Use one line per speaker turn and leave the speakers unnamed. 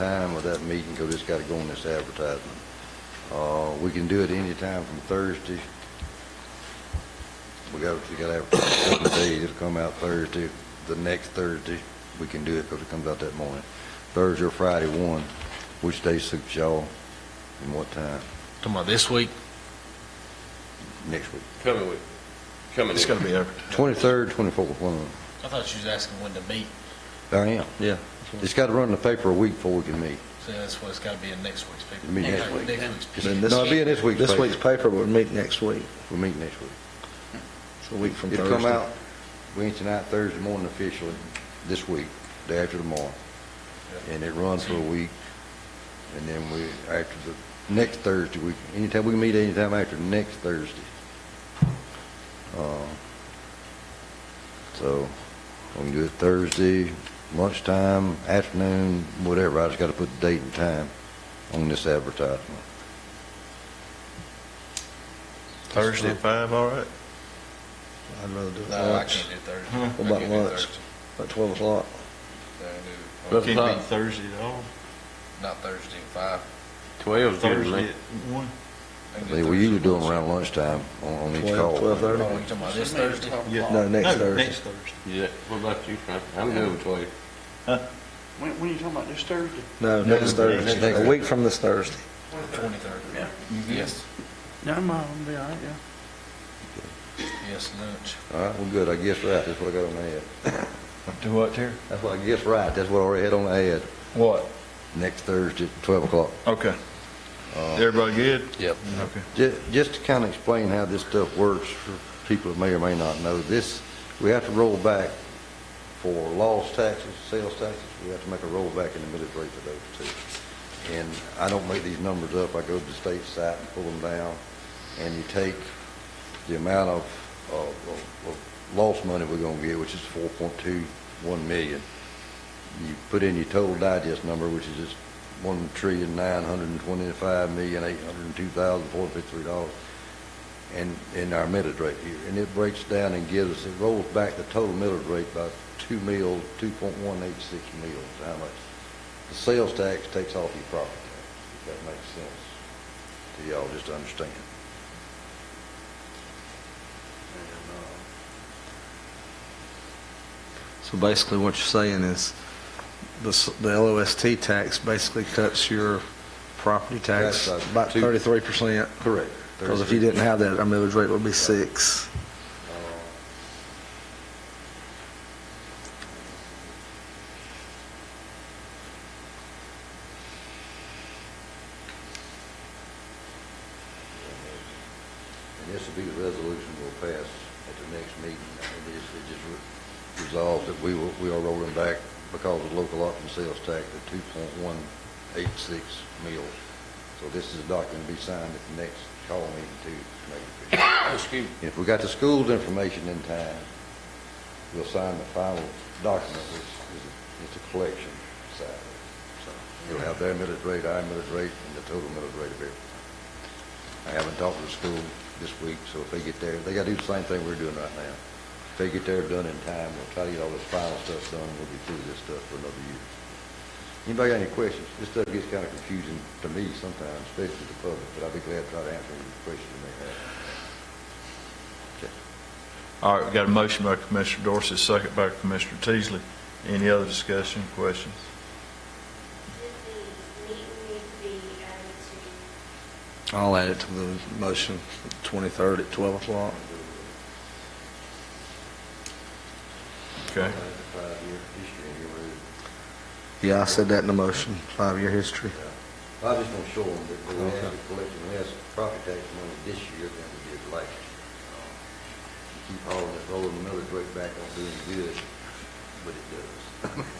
time of that meeting, because it's got to go in this advertisement. Uh, we can do it any time from Thursday. We got, we got to have a couple of days, it'll come out Thursday, the next Thursday, we can do it, because it comes out that morning. Thursday or Friday, one, which day suits y'all, and what time,
Talking about this week?
next week.
Coming with, coming
It's
in.
gonna be over.
Twenty-third, twenty-fourth, one, of them.
I thought you was asking when to meet,
I am, yeah. It's got to run in the paper a week before we can meet.
so that's what it's gotta be in next week's paper.
It'll be next week.
Next week's paper.
Then this-
No, it'll be in this week's
This
paper.
week's paper would meet next week,
We'll meet next week.
It's a week from Thursday.
It'll come out Wednesday night, Thursday morning officially, this week, day after tomorrow. And it runs for a week. And then we, after the, next Thursday, we, anytime, we can meet anytime after next Thursday. Uh, So, we can do it Thursday, lunchtime, afternoon, whatever. I just gotta put the date and time on this advertisement.
Thursday at five, all right? I'd rather do it
No, I
lunch,
can't do Thursday.
What about lunch? about twelve o'clock.
Not
Can't be Thursday at all.
Not Thursday, five.
Twelve's good,
Thursday
man.
at one.
I can do
They, we usually
Thursday.
do them around lunchtime on, on each
Twelve,
call.
Oh,
twelve-thirty?
you talking about this Thursday?
Yeah.
No, next
No,
Thursday.
Next Thursday.
Yeah, what about you, Frank? I'm good with twelve.
When, when you talking about this Thursday?
No, next Thursday,
next-
a week from this Thursday.
Twenty-third. Yes,
No, I'm, uh, be all right, yeah.
yes, lunch.
All right, well, good, I guess right, that's what I got on the ad.
Do what, Terry?
That's what I guess right, that's what I already had on the ad,
What?
next Thursday, at twelve o'clock.
Okay.
Uh,
Everybody good?
Yep.
Okay.
Ju- Just to kind of explain how this stuff works for people that may or may not know, this, we have to roll back for lost taxes, sales taxes, we have to make a rollback in the millage rate for those two. And I don't make these numbers up, I go to the state site and pull them down, and you take the amount of, of, of- of lost money we're gonna get, which is four point two one million. You put in your total digest number, which is just one trillion nine hundred and twenty-five million eight hundred and two thousand four hundred fifty-three dollars and, in our millage rate here. And it breaks down and gives, it rolls back the total millage rate by two mil, two point one eight six mils, how much? The sales tax takes off your property tax, if that makes sense to y'all, just to understand.
So basically what you're saying is the, s- the LOST tax basically cuts your property tax
That's a
by
two-
thirty-three percent.
Correct.
Because if you didn't have that, our millage rate would be six.
And this will be the resolution we'll pass at the next meeting. It is, it just re- resolves that we will, we are rolling back because of local option sales tax at two point one eight six mils. So this is a document to be signed at the next call meeting too, to make it official.
Excuse me.
If we got the school's information in time, we'll sign the final document, which is, it's a collection side. So You'll have their millage rate, our millage rate, and the total millage rate of everything. I haven't talked to the school this week, so if they get there, they gotta do the same thing we're doing right now. If they get there done in time, we'll try to get all this final stuff done, we'll be through this stuff for another year. Anybody got any questions? This stuff gets kinda confusing to me sometimes, especially to the public, but I'll be glad to try to answer any questions you may have.
All right, we got a motion by Commissioner Dorsey, second by Commissioner Teasley. Any other discussion, questions?
Did the meet and greet be added to
I'll add it to the motion, twenty-third at twelve o'clock.
Okay.
Five-year history in your room.
Yeah, I said that in the motion, five-year history.
I was just gonna show them that we have the collection, we have some property tax money this year than we did last year. Uh, Keep all this rolling another rate back on doing good, but it does. Oh,